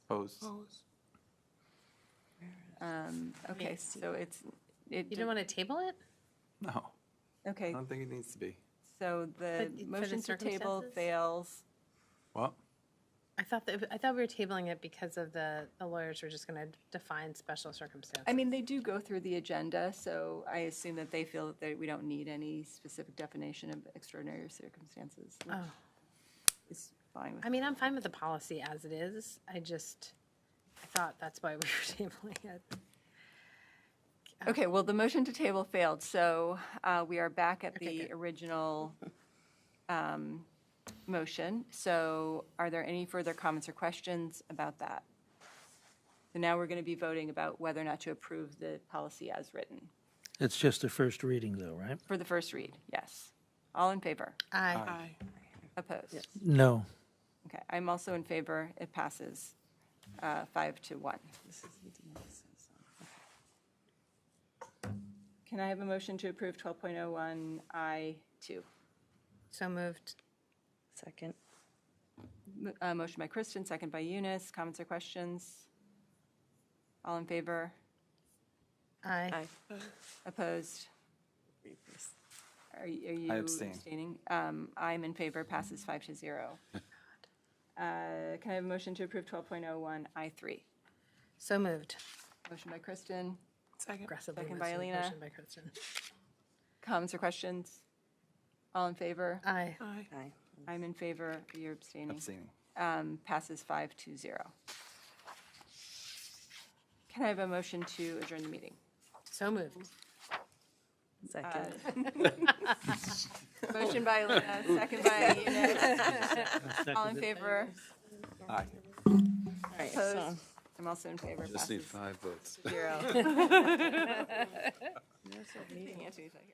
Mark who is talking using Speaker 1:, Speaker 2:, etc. Speaker 1: Opposed?
Speaker 2: Um, Okay,
Speaker 3: Yes.
Speaker 2: so it's, it,
Speaker 3: You don't want to table it?
Speaker 1: No, I
Speaker 2: okay,
Speaker 1: don't think it needs to be.
Speaker 2: so the
Speaker 3: But for the
Speaker 2: motion to table
Speaker 3: circumstances?
Speaker 2: fails.
Speaker 1: Well,
Speaker 3: I thought that, I thought we were tabling it because of the, the lawyers were just going to define special circumstances.
Speaker 2: I mean, they do go through the agenda, so I assume that they feel that we don't need any specific definition of extraordinary circumstances, which
Speaker 3: Oh.
Speaker 2: is fine with
Speaker 3: I mean, I'm fine with the policy as it is. I just, I thought that's why we were tabling it.
Speaker 2: Okay, well, the motion to table failed, so uh, we are back at
Speaker 3: Okay,
Speaker 2: the
Speaker 3: good.
Speaker 2: original um, motion. So are there any further comments or questions about that? So now we're going to be voting about whether or not to approve the policy as written.
Speaker 4: It's just the first reading though, right?
Speaker 2: For the first read, yes. All in favor?
Speaker 3: Aye.
Speaker 2: Opposed?
Speaker 4: No.
Speaker 2: Okay, I'm also in favor. It passes uh, five to one. Can I have a motion to approve 12.01I2?
Speaker 3: So moved.
Speaker 5: Second.
Speaker 2: M- uh, Motion by Kristen, second by Eunice. Comments or questions? All in favor?
Speaker 3: Aye.
Speaker 2: Opposed? Are y- are you
Speaker 1: I abstain.
Speaker 2: abstaining? Um, I'm in favor, passes five to zero. Uh, Can I have a motion to approve 12.01I3?
Speaker 3: So moved.
Speaker 2: Motion by Kristen,
Speaker 3: Aggressively.
Speaker 2: Second by
Speaker 3: moved.
Speaker 2: Alina.
Speaker 3: Motion by Kristen.
Speaker 2: comments or questions? All in favor?
Speaker 3: Aye.
Speaker 5: Aye.
Speaker 2: I'm in favor, you're abstaining.
Speaker 1: abstaining.
Speaker 2: Um, Passes five to zero. Can I have a motion to adjourn the meeting? Uh,
Speaker 3: So moved.
Speaker 5: Uh, Second.
Speaker 2: Motion by Elena, second by Eunice. All in favor?
Speaker 1: Aye.
Speaker 5: All right, so-
Speaker 2: Opposed? I'm also in favor.
Speaker 6: Just need
Speaker 2: Passes
Speaker 6: five votes.
Speaker 2: zero.